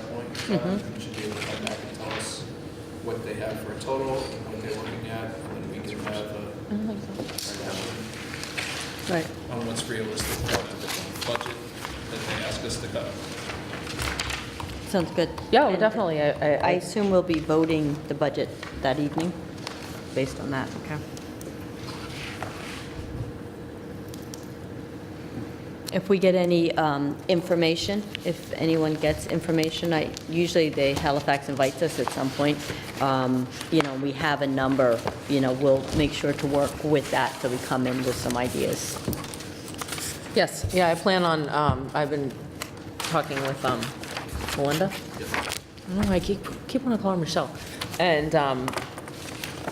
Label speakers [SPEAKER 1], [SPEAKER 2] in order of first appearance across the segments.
[SPEAKER 1] Mm-hmm.
[SPEAKER 2] charge, we should be able to come back and tell us what they have for a total, and what they're looking at, and then we can have a, have
[SPEAKER 3] Right,
[SPEAKER 2] a- on what's realistic part of the budget that they ask us to cut.
[SPEAKER 1] Sounds good.
[SPEAKER 3] yeah, well,
[SPEAKER 1] And
[SPEAKER 3] definitely, I- I,
[SPEAKER 1] I
[SPEAKER 3] I,
[SPEAKER 1] assume we'll be voting the budget that evening, based on that, okay? If we get any um, information, if anyone gets information, I, usually they, Halifax invites us at some point, um, you know, we have a number, you know, we'll make sure to work with that, so we come in with some ideas.
[SPEAKER 3] yes, yeah, I plan on, um, I've been talking with, um, Melinda. I don't know, I keep, keep wanting to call her Michelle. And, um,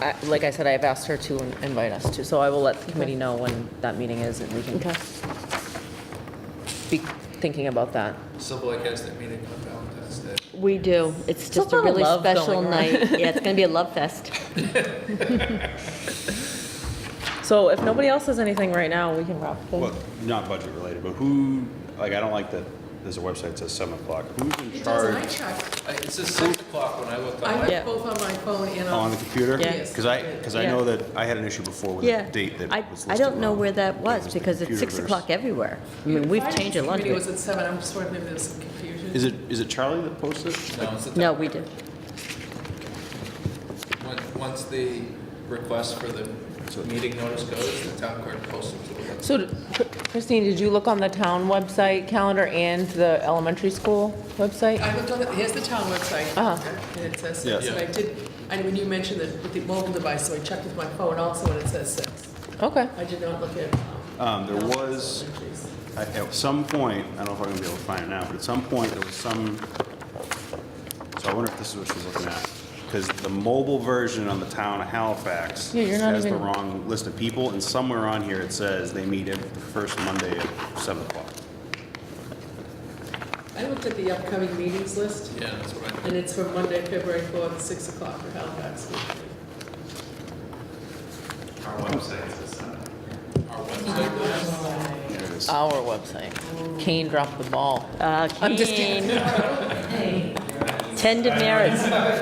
[SPEAKER 3] I, like I said, I've asked her to invite us to, so I will let the committee know when that meeting is and we can be thinking about that.
[SPEAKER 2] Civil Lake has that meeting on Valentine's Day.
[SPEAKER 1] We do. It's just
[SPEAKER 3] It's a
[SPEAKER 1] a
[SPEAKER 3] lot of
[SPEAKER 1] really
[SPEAKER 3] love
[SPEAKER 1] special
[SPEAKER 3] going on.
[SPEAKER 1] night. Yeah, it's going to be a love fest.
[SPEAKER 3] So if nobody else has anything right now, we can wrap
[SPEAKER 4] Well,
[SPEAKER 3] things.
[SPEAKER 4] not budget related, but who, like, I don't like that, there's a website that says seven o'clock. Who's in charge
[SPEAKER 2] I- It says six o'clock when I looked
[SPEAKER 5] I
[SPEAKER 2] on
[SPEAKER 5] have
[SPEAKER 1] Yeah.
[SPEAKER 5] both on my phone and
[SPEAKER 4] on
[SPEAKER 5] on.
[SPEAKER 4] the computer?
[SPEAKER 1] Yeah.
[SPEAKER 4] Because I, because I
[SPEAKER 3] Yeah.
[SPEAKER 4] know that I had an issue before with
[SPEAKER 1] Yeah.
[SPEAKER 4] a date that
[SPEAKER 1] I,
[SPEAKER 4] was listed
[SPEAKER 1] I don't know
[SPEAKER 4] wrong.
[SPEAKER 1] where that
[SPEAKER 4] It
[SPEAKER 1] was
[SPEAKER 4] the
[SPEAKER 1] because it's six
[SPEAKER 4] computer
[SPEAKER 1] o'clock
[SPEAKER 4] verse.
[SPEAKER 1] everywhere. I mean, we've changed a lot of
[SPEAKER 5] Finance committee was
[SPEAKER 1] it.
[SPEAKER 5] at seven, I'm just wondering if there's some confusion.
[SPEAKER 4] Is it, is it Charlie that posted?
[SPEAKER 2] it. No, it's at the-
[SPEAKER 1] No, we did.
[SPEAKER 2] When- Once the request for the meeting notice goes, the town clerk posts it to the website.
[SPEAKER 3] So Christine, did you look on the town website calendar and the elementary school website?
[SPEAKER 5] I looked on, the- here's the town website.
[SPEAKER 3] Uh-huh.
[SPEAKER 5] And it says
[SPEAKER 4] Yes.
[SPEAKER 5] six, but I did, and when you mentioned that with the mobile device, so I checked with my phone also, and it says six.
[SPEAKER 3] Okay.
[SPEAKER 5] I did not look at.
[SPEAKER 4] Um, there was- I- At some point, I don't know if I'm gonna be able to find it now, but at some point, there was some, so I wonder if this is what she's looking at. Because the mobile version on the town of Halifax
[SPEAKER 3] Yeah, you're not
[SPEAKER 4] has the
[SPEAKER 3] even-
[SPEAKER 4] wrong list of people, and somewhere on here it says they meet every the first Monday at seven o'clock.
[SPEAKER 5] I looked at the upcoming meetings list,
[SPEAKER 2] Yeah, that's what I
[SPEAKER 5] and it's from Monday, February fourth, six o'clock for Halifax.
[SPEAKER 2] Our website does.
[SPEAKER 3] Our website. Kane dropped the ball.
[SPEAKER 1] Uh,
[SPEAKER 3] I'm just kidding.
[SPEAKER 1] Keen. Tended merits.
[SPEAKER 5] Well,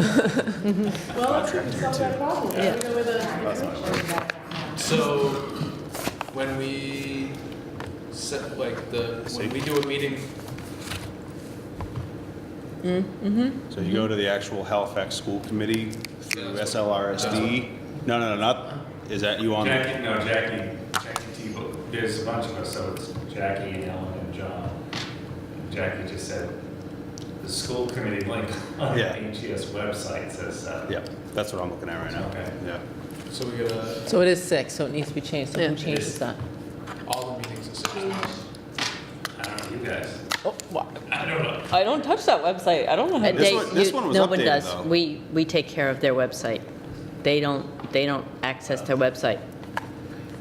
[SPEAKER 5] that's going to solve that problem. I don't know where the-
[SPEAKER 2] So when we set, like, the, when we do a meeting,
[SPEAKER 4] So you go to the actual Halifax School Committee through SLRSD? No, no, no, not, is that you on? there?
[SPEAKER 6] Jackie, no, Jackie, Jackie Tebow, there's a bunch of us, so it's Jackie and Ellen and John. Jackie just said, the school committee link on the
[SPEAKER 4] Yeah.
[SPEAKER 6] HES website says uh, that.
[SPEAKER 4] Yeah, that's what I'm looking at right now.
[SPEAKER 6] Okay.
[SPEAKER 4] Yeah.
[SPEAKER 2] so we got a,
[SPEAKER 3] So it is six, so it needs to be changed, so who
[SPEAKER 5] Yeah.
[SPEAKER 3] changes that?
[SPEAKER 2] all the meetings at six o'clock.
[SPEAKER 6] I don't know, you guys,
[SPEAKER 3] Oh, wow.
[SPEAKER 6] I don't know.
[SPEAKER 3] I don't touch that website, I don't know.
[SPEAKER 1] Uh,
[SPEAKER 3] how to-
[SPEAKER 4] This
[SPEAKER 1] they-
[SPEAKER 4] one- this
[SPEAKER 1] you-
[SPEAKER 4] one was
[SPEAKER 1] No one
[SPEAKER 4] updated,
[SPEAKER 1] does.
[SPEAKER 4] though.
[SPEAKER 1] We, we take care of their website. They don't, they don't access their website.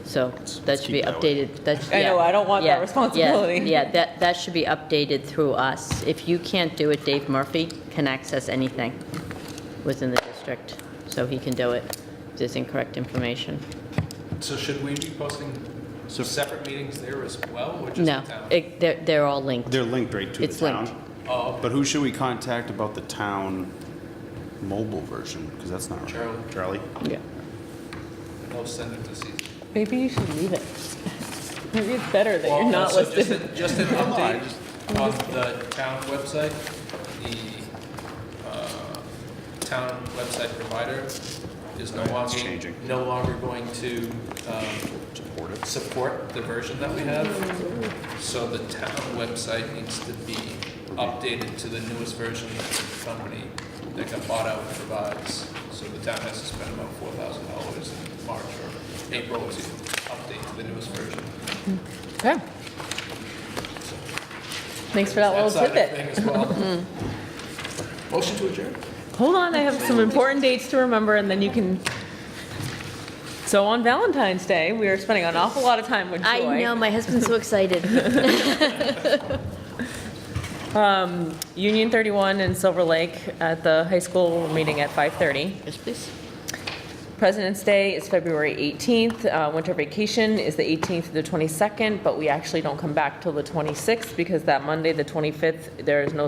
[SPEAKER 1] So that
[SPEAKER 4] let's
[SPEAKER 1] should be
[SPEAKER 4] keep that way.
[SPEAKER 1] updated, that's,
[SPEAKER 3] I
[SPEAKER 1] yeah.
[SPEAKER 3] know, I don't want that
[SPEAKER 1] Yeah, yeah,
[SPEAKER 3] responsibility.
[SPEAKER 1] Yeah, that, that should be updated through us. If you can't do it, Dave Murphy can access anything within the district, so he can do it if there's incorrect information.
[SPEAKER 2] So should we be posting separate meetings there as well, or just the
[SPEAKER 1] No,
[SPEAKER 2] town?
[SPEAKER 1] it- they're, they're all linked.
[SPEAKER 4] They're linked right to the
[SPEAKER 1] It's linked.
[SPEAKER 4] town.
[SPEAKER 2] Oh,
[SPEAKER 4] But who should we contact about the town mobile version? Because that's not right.
[SPEAKER 2] Charlie.
[SPEAKER 4] Charlie?
[SPEAKER 1] Yeah.
[SPEAKER 2] no, send it to Cece.
[SPEAKER 3] Maybe you should leave it. Maybe it's better that you're
[SPEAKER 2] Well,
[SPEAKER 3] not
[SPEAKER 2] so just
[SPEAKER 3] listed.
[SPEAKER 2] a- Just an update on the town website, the uh, town website provider is no
[SPEAKER 4] Right, it's
[SPEAKER 2] longer,
[SPEAKER 4] changing.
[SPEAKER 2] no longer going to um,
[SPEAKER 4] Support it.
[SPEAKER 2] support the version that we have. So the town website needs to be updated to the newest version that the company that got bought out provides. So the town has to spend about four thousand dollars in March or April to update to the newest version.
[SPEAKER 3] Okay. Thanks for that little
[SPEAKER 2] side of
[SPEAKER 3] tidbit. Mm-hmm.
[SPEAKER 2] thing as well. Motion to adjourn.
[SPEAKER 3] Hold on, I have some important dates to remember, and then you can. So on Valentine's Day, we are spending an awful lot of time with Joy.
[SPEAKER 1] I know, my husband's so excited.
[SPEAKER 3] Union 31 in Silver Lake at the high school we're meeting at 5:30.
[SPEAKER 1] Yes, please.
[SPEAKER 3] President's Day is February 18th. Uh, Winter vacation is the 18th to the 22nd, but we actually don't come back till the 26th because that Monday, the 25th, there is no